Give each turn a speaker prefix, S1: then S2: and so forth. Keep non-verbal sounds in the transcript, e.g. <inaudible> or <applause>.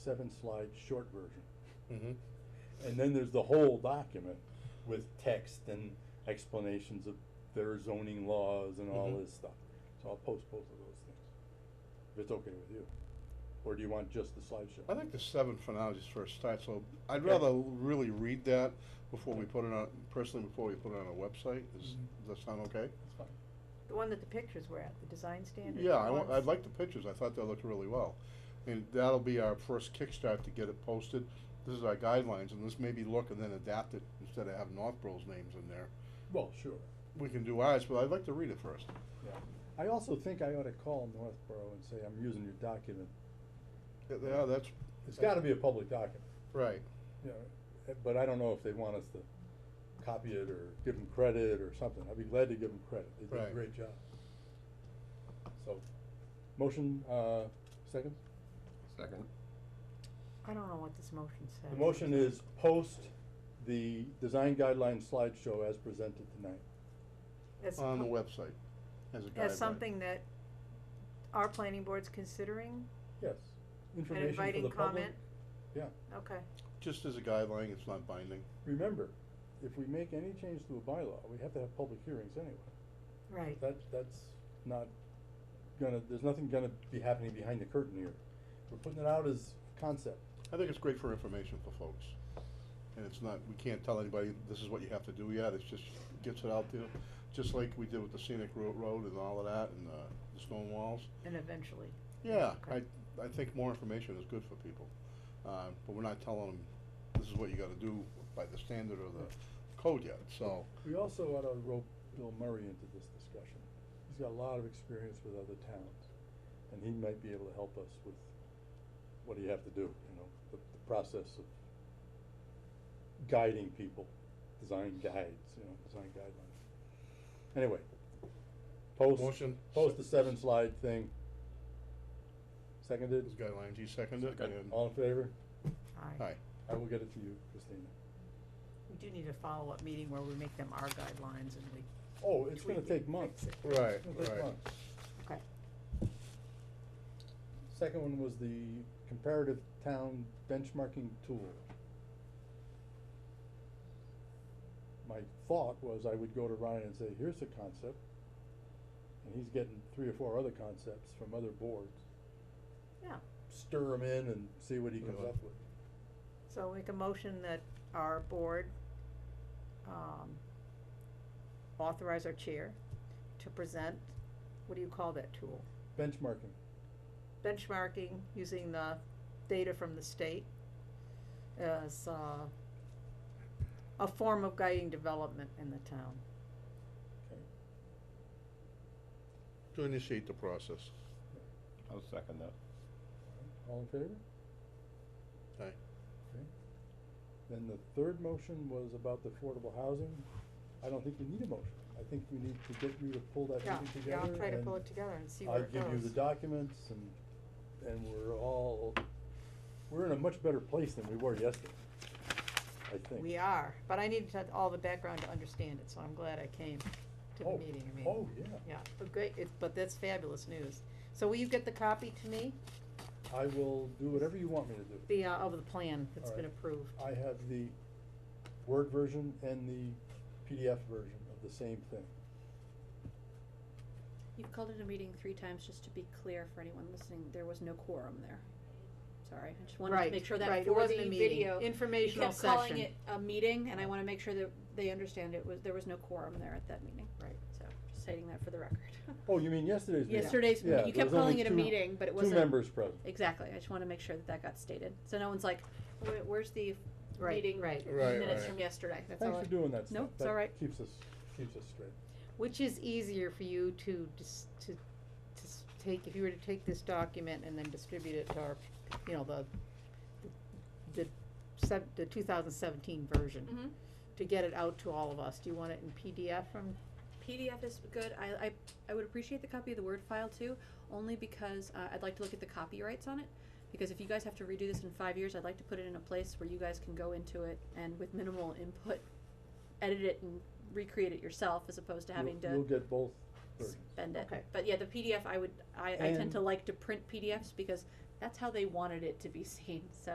S1: seven slide short version.
S2: Mhm.
S1: And then there's the whole document with text and explanations of their zoning laws and all
S2: Mhm.
S1: this stuff. So I'll post both of those things, if it's okay with you. Or do you want just the
S2: I
S1: slideshow?
S2: think the seven for now is just for a start, so I'd
S1: Okay.
S2: rather really read that before we put it on, personally, before we put it on a website, is,
S1: Mhm.
S2: does that sound okay?
S1: It's fine.
S3: The one that the pictures were at, the design standard.
S2: Yeah, I want,
S3: ones.
S2: I'd like the pictures, I thought they looked really well, and that'll be our first kickstart to get it posted. This is our guidelines, and this may be look and then adapt it, instead of having Northborough's names in there.
S1: Well, sure,
S2: We can do ours, but I'd like to read it first.
S1: yeah. I also think I ought to call Northborough and say, I'm using your document.
S2: Yeah, Yeah, that's.
S1: It's gotta be a public document,
S2: Right,
S1: you know, eh, but I don't know if they want us to copy it or give them credit or something. I'd be glad to give them credit. They did a
S2: Right.
S1: great job. So, motion, uh, second?
S4: Second.
S3: I don't know what this motion says.
S1: The motion is post the design guideline slideshow as presented tonight.
S3: As
S2: on the
S3: po-
S2: website, as a guideline.
S3: As something that our planning board's considering
S1: Yes.
S3: and
S1: Information for the
S3: inviting
S1: public.
S3: comment?
S1: Yeah.
S3: Okay,
S2: Just as a guideline, it's not binding.
S1: Remember, if we make any change to a bylaw, we have to have public hearings anyway.
S3: right.
S1: That, that's not gonna, there's nothing gonna be happening behind the curtain here. We're putting it out as concept.
S2: I think it's great for information for folks. And it's not, we can't tell anybody, this is what you have to do yet, it's just, gets it out there, just like we did with the scenic ro- road and all of that, and, uh, the stone walls.
S3: And eventually.
S2: Yeah, I,
S3: Okay.
S2: I think more information is good for people, uh, but we're not telling them, this is what you gotta do by the standard or the code yet, so.
S1: We also ought to rope Bill Murray into this discussion. He's got a lot of experience with other towns, and he might be able to help us with what do you have to do, you know, the, the process of guiding people, design guides, you know, design guidelines. Anyway, post.
S2: Motion.
S1: Post the seven slide thing. Seconded,
S2: Those guidelines, he seconded,
S4: Second.
S2: and,
S1: all in favor?
S3: Aye.
S2: hi,
S1: I will get it to you, Christina.
S3: We do need a follow-up meeting where we make them our guidelines and we.
S1: Oh, it's gonna
S3: tweak it,
S1: take months.
S3: fix it.
S2: right,
S1: It's gonna take
S2: right,
S1: months.
S3: Okay,
S1: Second one was the comparative town benchmarking tool. My thought was I would go to Ryan and say, here's the concept. And he's getting three or four other concepts from other boards.
S3: yeah.
S1: Stir them in and see what he comes
S2: Really?
S1: up with.
S3: So make a motion that our board, um, authorize our chair to present, what do you call that tool?
S1: Benchmarking,
S3: benchmarking using the data from the state as uh, a form of guiding development in the town.
S1: okay.
S2: to initiate the process,
S4: I'll second that.
S1: All in favor?
S2: hi.
S1: Okay. Then the third motion was about the affordable housing. I don't think we need a motion. I think we need to get you to pull that
S3: Yeah,
S1: meeting together
S3: yeah, I'll try to
S1: and-
S3: pull it together and see
S1: I
S3: where it goes.
S1: give you the documents and, and we're all, we're in a much better place than we were yesterday, I think.
S3: We are, but I needed to have all the background to understand it, so I'm glad I came to the
S1: Oh,
S3: meeting, I mean.
S1: Oh, yeah.
S3: Yeah, but great, it's, but that's fabulous news. So will you get the copy to me,
S1: I will do whatever you want me to do.
S3: the, uh, of the plan that's been
S1: Alright.
S3: approved?
S1: I have the Word version and the PDF version of the same thing.
S5: You've called it a meeting three times, just to be clear for anyone listening, there was no quorum there. Sorry, I just wanted to
S3: Right,
S5: make sure
S3: right,
S5: that
S3: it
S5: for
S3: wasn't
S5: the
S3: a meeting,
S5: video, you
S3: informational
S5: kept calling
S3: session.
S5: it a meeting, and I wanna make sure that they understand it was, there was no quorum there at that meeting.
S3: Right.
S5: So, just stating that for the record.
S1: <laughs> Oh, you mean yesterday's meeting?
S5: Yesterday's,
S1: Yeah,
S5: meeting. you
S1: there
S5: kept
S1: was only
S5: calling it a
S1: two-
S5: meeting, but it wasn't.
S1: Two members present.
S5: Exactly, I just wanna make sure that that got stated, so no one's like, where, where's the
S3: Right,
S5: meeting
S3: right.
S2: Right,
S5: minutes
S2: right.
S5: from yesterday, that's all.
S1: Thanks
S5: I-
S1: for doing that stuff.
S5: No, it's
S1: That
S5: all right.
S1: Keeps us, keeps us straight.
S3: Which is easier for you to dis- to, to s- take, if you were to take this document and then distribute it to our, you know, the, the, sev- the two thousand seventeen version,
S5: Mhm.
S3: to get it out to all of us, do you want it in PDF from,
S5: PDF is good. I, I, I would appreciate the copy of the Word file too, only because uh, I'd like to look at the copyrights on it. Because if you guys have to redo this in five years, I'd like to put it in a place where you guys can go into it and with minimal input, edit it and recreate it yourself as opposed to
S1: You'll-
S5: having
S1: You'll
S5: to
S1: get both versions.
S5: spend it.
S3: Okay.
S5: But yeah, the PDF, I would, I, I
S1: And-
S5: tend to like to print PDFs because that's how they wanted it to be seen, so.